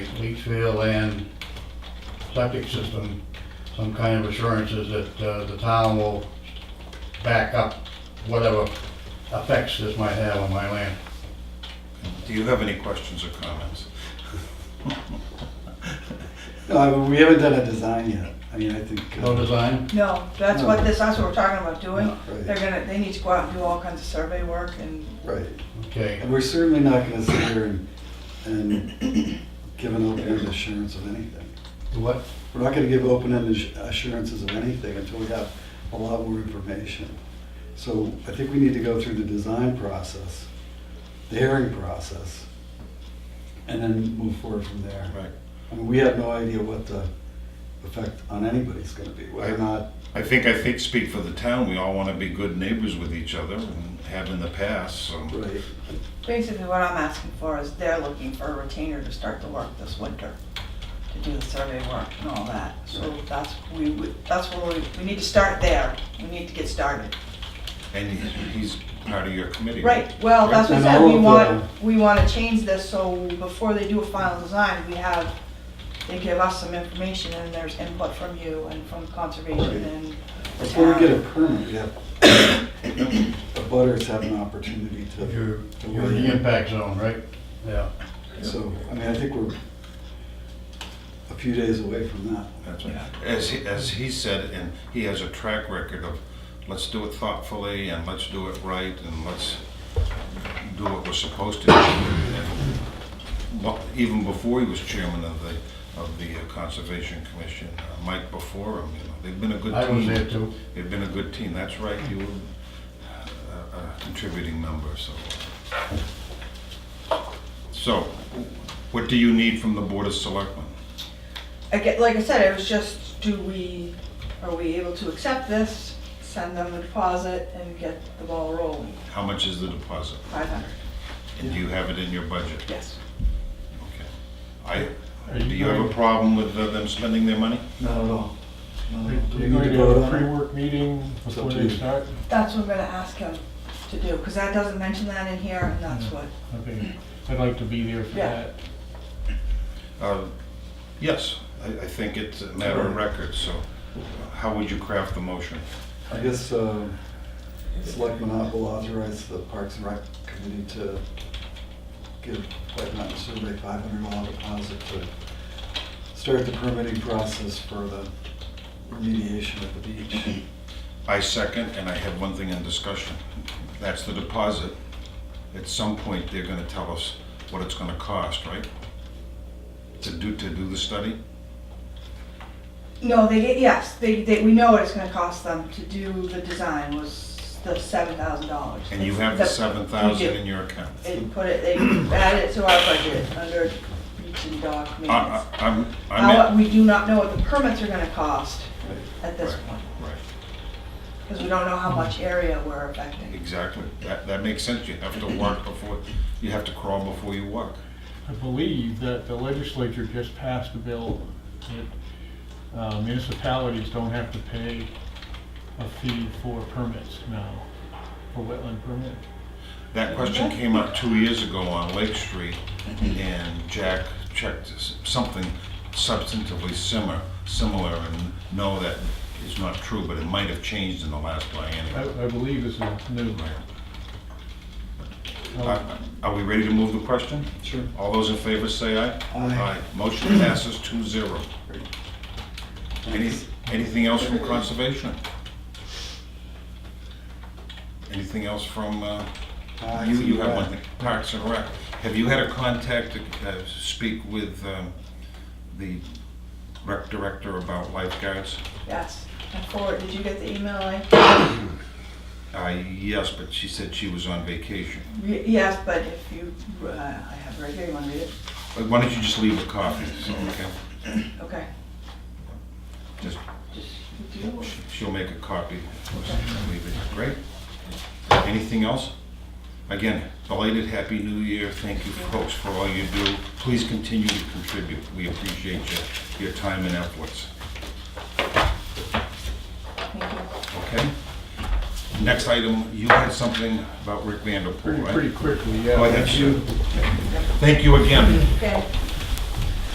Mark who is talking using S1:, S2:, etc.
S1: Leachville and septic system, some kind of assurances that uh, the town will back up whatever effects this might have on my land.
S2: Do you have any questions or comments?
S3: No, I mean, we haven't done a design yet. I mean, I think. uh,
S1: No design?
S4: No, that's what this, that's what we're talking about doing.
S3: No, right.
S4: They're gonna, they need to go out and do all kinds of survey work and,
S3: Right.
S1: Okay,
S3: And we're certainly not gonna sit here and, and give an open-ended assurance of anything.
S1: what,
S3: We're not gonna give open-ended assurances of anything until we have a lot more information. So I think we need to go through the design process, the hearing process, and then move forward from there.
S2: Right.
S3: I mean, we have no idea what the effect on anybody's gonna be, whether or not,
S2: I think I think speak for the town. We all want to be good neighbors with each other and have in the past. So
S3: right,
S4: basically what I'm asking for is they're looking for a retainer to start the work this winter, to do the survey work and all that. So that's, we, would- that's where we, we need to start there. We need to get started.
S2: and he- he's part of your committee.
S4: Right, well, that's what I
S3: And
S4: said,
S3: all
S4: we
S3: of
S4: want, we wanna change this, so before they do a final design, we have, they give us some information, and there's input from you and from conservation and. the
S3: before we get a
S4: town.
S3: permit, we have, the butters have an opportunity to,
S1: you're, you're in the impact zone, right? Yeah.
S3: so, I mean, I think we're a few days away from that.
S2: That's right. As he, as he said, and he has a track record of let's do it thoughtfully and let's do it right and let's do what we're supposed to do. And mo- even before he was chairman of the of the uh, conservation commission, uh, Mike before him, you know, they've been a good
S1: I
S2: team.
S1: was there too.
S2: They've been a good team, that's right, you were uh, a- a contributing member, so. So, what do you need from the Board of Selectmen?
S4: I get, like I said, it was just, do we, are we able to accept this, send them the deposit, and get the ball rolling,
S2: How much is the deposit?
S4: five hundred,
S2: And do you have it in your budget?
S4: yes.
S2: Okay. I,
S5: Are
S2: do
S5: you
S2: you have a
S5: going-
S2: problem with uh, them spending their money?
S3: Not at all. Not
S5: Are
S3: at all. Do we
S5: you
S3: need to
S5: going to have
S3: vote
S5: a
S3: on it?
S5: pre-work meeting
S3: It's up
S5: before
S3: to
S5: they
S3: you.
S5: start?
S4: That's what I'm gonna ask him to do, cause that doesn't mention that in here, and
S2: Mm-hmm.
S4: that's what,
S5: Okay, I'd like to be there for
S4: Yeah.
S5: that.
S2: Uh, Yes, I, I think it's a matter of record, so how would you craft the motion?
S3: I guess, uh, Selectmen will authorize the Parks and Rec Committee to give White Mountain Survey five hundred dollar deposit to start the permitting process for the remediation of the beach.
S2: I second, and I have one thing in discussion. That's the deposit. At some point, they're gonna tell us what it's gonna cost, right? To do, to do the study?
S4: no, they, yes, they, they, we know what it's gonna cost them to do the design was the seven thousand dollars.
S2: And you have the seven thousand in your account.
S4: and put it, they add it to our budget under each and dock
S2: I,
S4: maintenance.
S2: I, I'm,
S4: Now,
S2: I'm,
S4: we do not know what the permits are gonna cost
S3: Right.
S4: at this
S2: Right.
S4: point,
S2: in- right,
S4: because we don't know how much area we're affecting.
S2: exactly. That, that makes sense. You have to walk before, you have to crawl before you walk.
S5: I believe that the legislature just passed a bill that uh, municipalities don't have to pay a fee for permits now, for wetland permit.
S2: That question came up two years ago on Lake Street, and Jack checked s- something substantively similar, similar, and no, that is not true, but it might have changed in the last
S5: I,
S2: biennium.
S5: I believe this is new. Uh,
S2: Are are we ready to move the question?
S3: Sure.
S2: All those in favor say aye.
S3: Aye.
S2: Motion passes two zero. Any, anything else from conservation? Anything else from, uh,
S3: Parks
S2: you, you
S3: and
S2: have
S3: Rec.
S2: one thing, Parks and Rec. Have you had a contact to, uh, speak with, um, the rec director about lifeguards?
S4: Yes, and forward, did you get the email? I-
S2: Uh, yes, but she said she was on vacation.
S4: Re- Yes, but if you, uh, I have it right here, you wanna read it?
S2: But Why don't you just leave a copy, so, okay?
S4: Okay.
S2: Just
S4: Just do it.
S2: She'll make a copy. Leave it. Great. Anything else? Again, belated Happy New Year. Thank you, folks, for all you do. Please continue to contribute. We appreciate your, your time and efforts.
S4: Thank you.
S2: Okay? Next item, you had something about Rick Vanderpool,
S5: Pretty,
S2: right?
S5: pretty quickly, yeah.
S2: Go ahead, sir. Thank you again.
S4: Okay,